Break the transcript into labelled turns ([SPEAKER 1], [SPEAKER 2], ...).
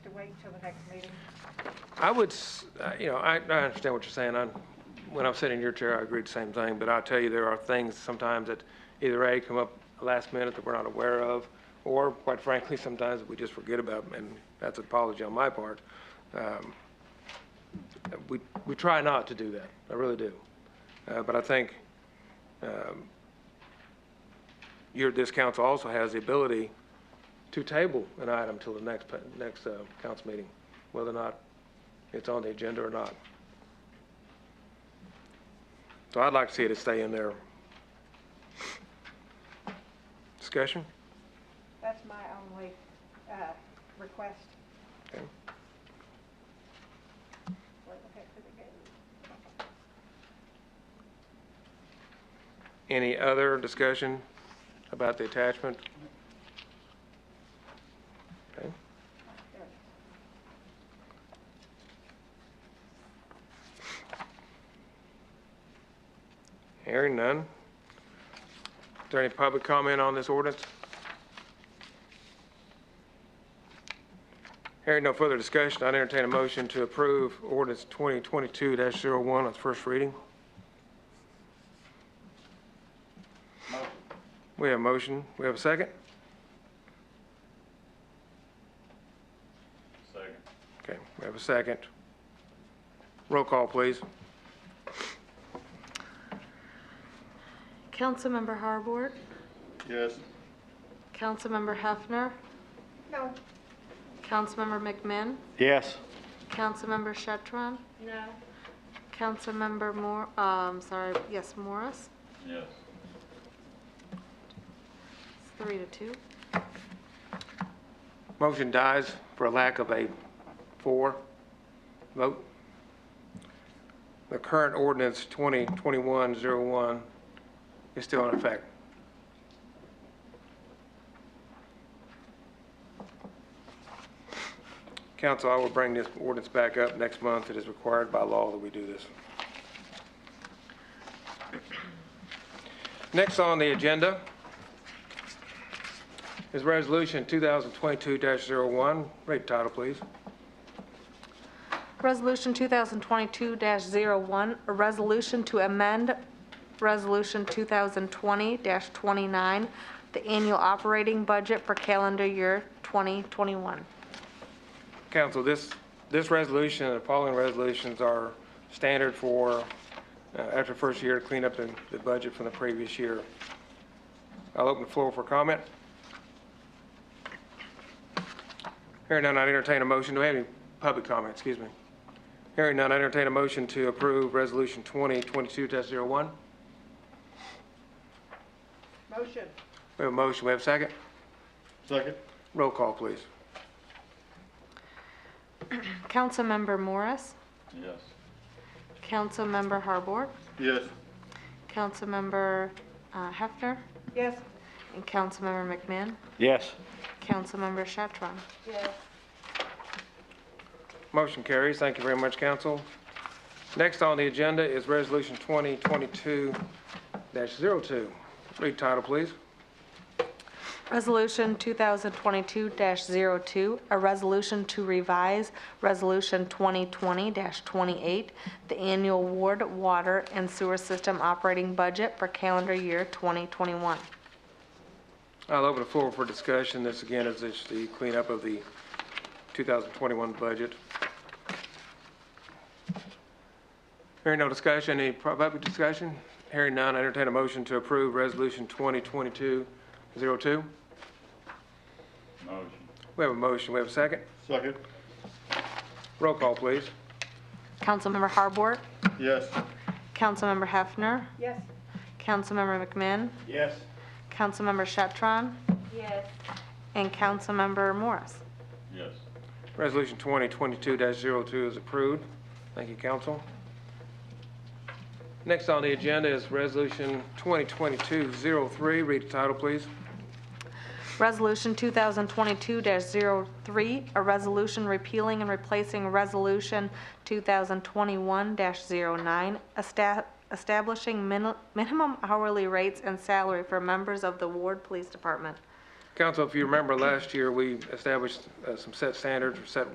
[SPEAKER 1] wait till the next meeting?
[SPEAKER 2] I would, s- uh, you know, I, I understand what you're saying. I, when I'm sitting in your chair, I agree the same thing, but I'll tell you, there are things sometimes that either A, come up last minute that we're not aware of, or quite frankly, sometimes we just forget about, and that's an apology on my part. Um, We, we try not to do that, I really do. Uh, but I think, um, your, this council also has the ability to table an item till the next, pa- next, uh, council meeting, whether or not it's on the agenda or not. So I'd like to see it stay in there. Discussion?
[SPEAKER 1] That's my only, uh, request.
[SPEAKER 2] Okay.
[SPEAKER 1] Where the heck did it go?
[SPEAKER 2] Any other discussion about the attachment? Okay.
[SPEAKER 1] There it is.
[SPEAKER 2] Hearing none. Is there any public comment on this ordinance? Hearing no further discussion, I'd entertain a motion to approve ordinance 2022-01 on its first reading. We have a motion. We have a second?
[SPEAKER 3] Second.
[SPEAKER 2] Okay, we have a second. Roll call, please.
[SPEAKER 4] Councilmember Harbord,
[SPEAKER 3] Yes.
[SPEAKER 4] Councilmember Hefner,
[SPEAKER 1] No,
[SPEAKER 4] Councilmember McMinn,
[SPEAKER 3] Yes.
[SPEAKER 4] Councilmember Shetron,
[SPEAKER 1] no,
[SPEAKER 4] Councilmember Moore, um, sorry, yes, Morris,
[SPEAKER 3] Yes.
[SPEAKER 4] It's three to two.
[SPEAKER 2] Motion dies for lack of a four vote. The current ordinance 2021-01 is still in effect. Council, I will bring this ordinance back up next month. It is required by law that we do this. Next on the agenda is Resolution 2022-01. Read title, please.
[SPEAKER 4] Resolution 2022-01, a resolution to amend Resolution 2020-29, the annual operating budget for calendar year 2021.
[SPEAKER 2] Council, this, this resolution and the following resolutions are standard for, uh, after first year, clean up the, the budget from the previous year. I'll open the floor for comment. Hearing none, I entertain a motion. Do we have any public comment? Excuse me. Hearing none, I entertain a motion to approve Resolution 2022-01.
[SPEAKER 1] motion,
[SPEAKER 2] We have a motion. We have a second.
[SPEAKER 3] Second.
[SPEAKER 2] Roll call, please.
[SPEAKER 4] Councilmember Morris,
[SPEAKER 3] Yes.
[SPEAKER 4] Councilmember Harbord,
[SPEAKER 3] Yes.
[SPEAKER 4] Councilmember uh, Hefner,
[SPEAKER 1] yes,
[SPEAKER 4] and Councilmember McMahon.
[SPEAKER 3] Yes.
[SPEAKER 4] Councilmember Shatron.
[SPEAKER 1] yes,
[SPEAKER 2] Motion carries. Thank you very much, council. Next on the agenda is Resolution 2022-02. Read title, please.
[SPEAKER 4] Resolution 2022-02, a resolution to revise Resolution 2020-28, the annual ward water and sewer system operating budget for calendar year 2021.
[SPEAKER 2] I'll open the floor for discussion. This again is just the cleanup of the 2021 budget. Hearing no discussion, any pu- public discussion? Hearing none, I entertain a motion to approve Resolution 2022-02. We
[SPEAKER 3] Motion.
[SPEAKER 2] have a motion, we have a second.
[SPEAKER 3] Second.
[SPEAKER 2] Roll call, please.
[SPEAKER 4] Councilmember Harbord,
[SPEAKER 3] Yes.
[SPEAKER 4] Councilmember Hefner,
[SPEAKER 1] yes.
[SPEAKER 4] Councilmember McMahon,
[SPEAKER 3] Yes.
[SPEAKER 4] Councilmember Shatron,
[SPEAKER 1] Yes.
[SPEAKER 4] and Councilmember Morris.
[SPEAKER 3] Yes.
[SPEAKER 2] Resolution 2022-02 is approved. Thank you, council. Next on the agenda is Resolution 2022-03. Read the title, please.
[SPEAKER 4] Resolution 2022-03, a resolution repealing and replacing Resolution 2021-09, esta- establishing min- minimum hourly rates and salary for members of the Ward Police Department.
[SPEAKER 2] Council, if you remember last year, we established uh, some set standards or set